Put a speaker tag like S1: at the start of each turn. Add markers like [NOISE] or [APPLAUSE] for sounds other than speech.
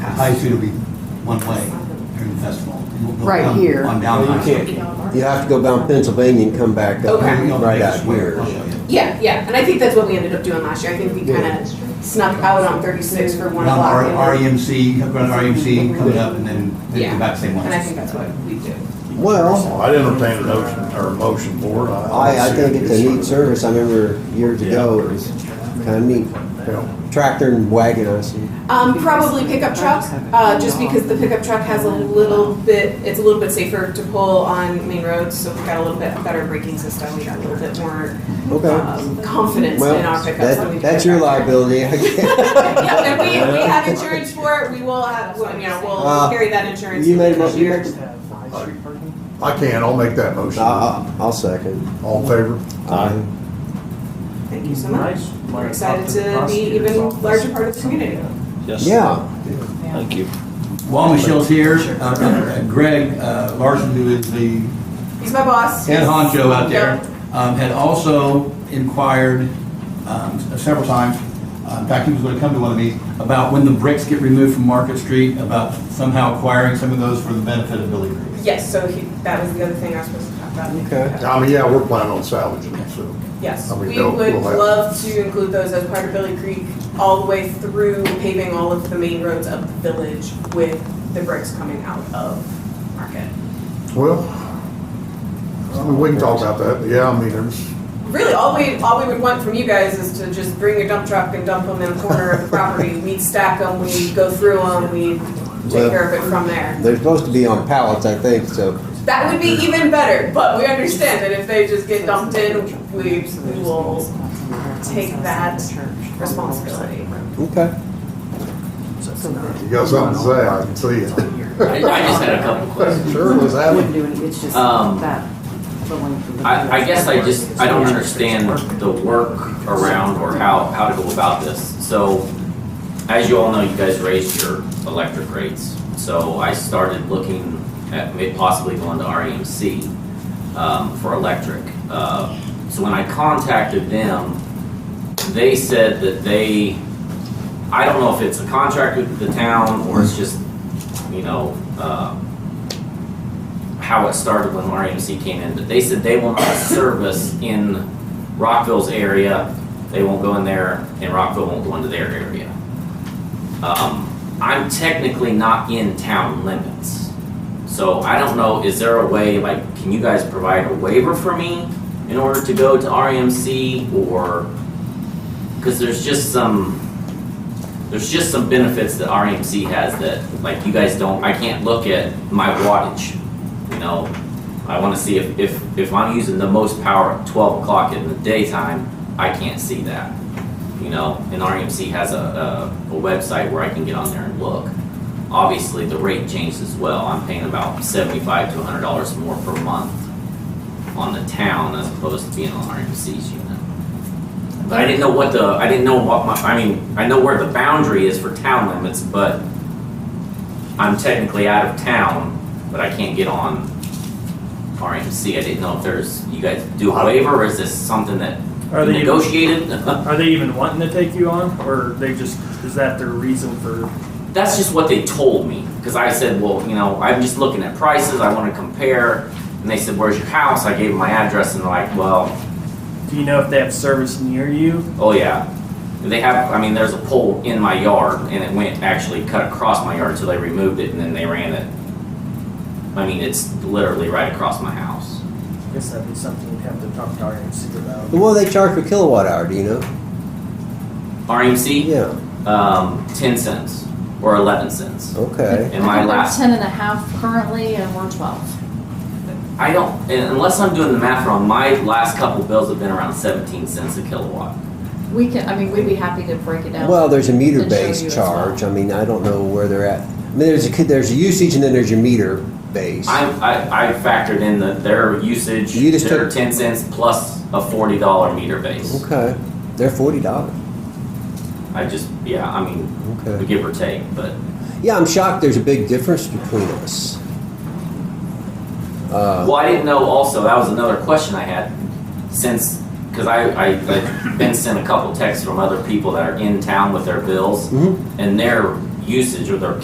S1: High Street will be one way during the festival. It won't go
S2: Right
S1: down-
S2: here.
S1: On down
S3: Well,
S1: High
S3: you
S1: Street.
S3: can't, you have to go down Pennsylvania and come back up,
S1: Yeah, we don't-
S3: right
S1: just
S3: out
S1: wait.
S3: here.
S1: I'll show you.
S4: Yeah, yeah, and I think that's what we ended up doing last year. I think we
S3: Yeah.
S4: kind of snuck out on 36 for one
S1: Down
S4: block. and
S1: R-
S4: then-
S1: REMC, run E REMC, coming up, and then they
S4: Yeah.
S1: come back same
S4: And I
S1: way.
S4: think that's what we do.
S3: Well,
S5: I'd entertain a notion, or a motion for it.
S3: I, I think it's a neat service, I remember years
S5: Yeah.
S3: ago, it was kinda neat. Tractor and wagon, I see.
S4: Um, probably pickup truck, uh, just because the pickup truck has a little bit, it's a little bit safer to pull on main roads, so we've got a little bit better braking system. We got a little bit more
S3: Okay.
S4: um, confidence in our
S3: Well,
S4: pickups. than
S3: that,
S4: we've
S3: that's
S4: got
S3: your
S4: back there.
S3: liability, I guess.
S4: Yeah, and we, we have insurance for it. We will have, well, you know, we'll
S3: Uh,
S4: carry that insurance.
S3: You made, a mo-
S4: this
S3: you
S4: year.
S3: made,
S5: I can, I'll make that motion.
S3: I'll, I'll second. Um,
S5: All in favor?
S3: Aye.
S4: Thank you so much. We're excited to be even larger part of the community.
S6: Yes.
S3: Yeah,
S6: Thank you.
S1: While Michelle's here, uh, uh, Greg uh, Larson, who is the
S4: He's my boss.
S1: Ed Honcho out there,
S4: Yep.
S1: um, had also inquired um, several times, uh, in fact, he was going to come to one of these, about when the bricks get removed from Market Street, about somehow acquiring some of those for the benefit of Billy Creek.
S4: Yes, so he, that was the other thing I was supposed to talk about.
S3: Okay.
S5: I mean, yeah, we're planning on salvaging it, so.
S4: Yes,
S5: I mean,
S4: we
S5: they'll-
S4: would
S5: we'll have-
S4: love to include those as part of Billy Creek, all the way through paving all of the main roads of the village with the bricks coming out of Market.
S5: Well, I mean, we can talk about that, but yeah, I mean, there's,
S4: Really, all we, all we would want from you guys is to just bring a dump truck and dump them in a corner of the property. We stack them, we go through them, we
S3: Well-
S4: take care of it from there.
S3: they're supposed to be on pallets, I think, so,
S4: That would be even better, but we understand that if they just get dumped in, we, we will take that responsibility.
S3: okay.
S5: you got something to say, I can see it.
S7: I, I just had a couple questions.
S5: Sure, was
S2: I
S5: that
S2: wouldn't
S5: one?
S2: do it, it's just
S7: Um,
S2: that. the length of the-
S7: I, I guess I just, I don't understand the work around or how, how to go about this. So, as you all know, you guys raised your electric rates. So I started looking at may- possibly going to REMC, um, for electric. Uh, So when I contacted them, they said that they, I don't know if it's a contract with the town or it's just, you know, uh, how it started when RMC came in, but they said they will not service in Rockville's area. They won't go in there, and Rockville won't go into their area. Um, I'm technically not in town limits. So I don't know, is there a way, like, can you guys provide a waiver for me in order to go to RMC or? Cause there's just some, there's just some benefits that RMC has that, like, you guys don't, I can't look at my wattage. You know, I wanna see if, if, if I'm using the most power at twelve o'clock in the daytime, I can't see that. You know, and RMC has a, a, a website where I can get on there and look. Obviously, the rate changed as well. I'm paying about seventy-five to hundred dollars more per month on the town as opposed to being on RMC's unit. But I didn't know what the, I didn't know what my, I mean, I know where the boundary is for town limits, but I'm technically out of town, but I can't get on RMC. I didn't know if there's, you guys do a waiver or is this something that
S8: Are
S7: you
S8: they even,
S7: negotiated? [LAUGHS]
S8: are they even wanting to take you on, or they just is that their reason for?
S7: That's just what they told me, because I said, well, you know, I'm just looking at prices, I wanna compare. And they said, where's your house? I gave them my address and they're like, well,
S8: Do you know if they have service near you?
S7: oh yeah. They have, I mean, there's a pole in my yard and it went, actually cut across my yard, so they removed it and then they ran it. I mean, it's literally right across my house.
S8: I guess that'd be something you'd have to talk to RMC about.
S3: What do they charge per kilowatt hour, do you know?
S7: RMC,
S3: Yeah,
S7: E um, ten cents or eleven cents.
S3: okay.
S7: And my last
S9: We're ten and a half currently, and we're twelve.
S7: I don't, and unless I'm doing the math wrong, my last couple bills have been around 17 cents a kilowatt.
S9: We can, I mean, we'd be happy to break it down.
S3: Well, there's a
S9: Then show you
S3: meter-based
S9: as well.
S3: charge, I mean, I don't know where they're at. I mean, there's a, there's a usage and then there's your meter base.
S7: I, I, I factored in the, their usage,
S3: You just
S7: their
S3: took-
S7: 10 cents plus a $40 meter base.
S3: Okay, they're forty dollars,
S7: I just, yeah, I mean,
S3: okay.
S7: give or take, but
S3: Yeah, I'm shocked there's a big difference between us. Uh,
S7: Well, I didn't know also, that was another question I had, since, because I, I, I've been sent a couple texts from other people that are in town with their bills,
S3: Mhm.
S7: and their usage or their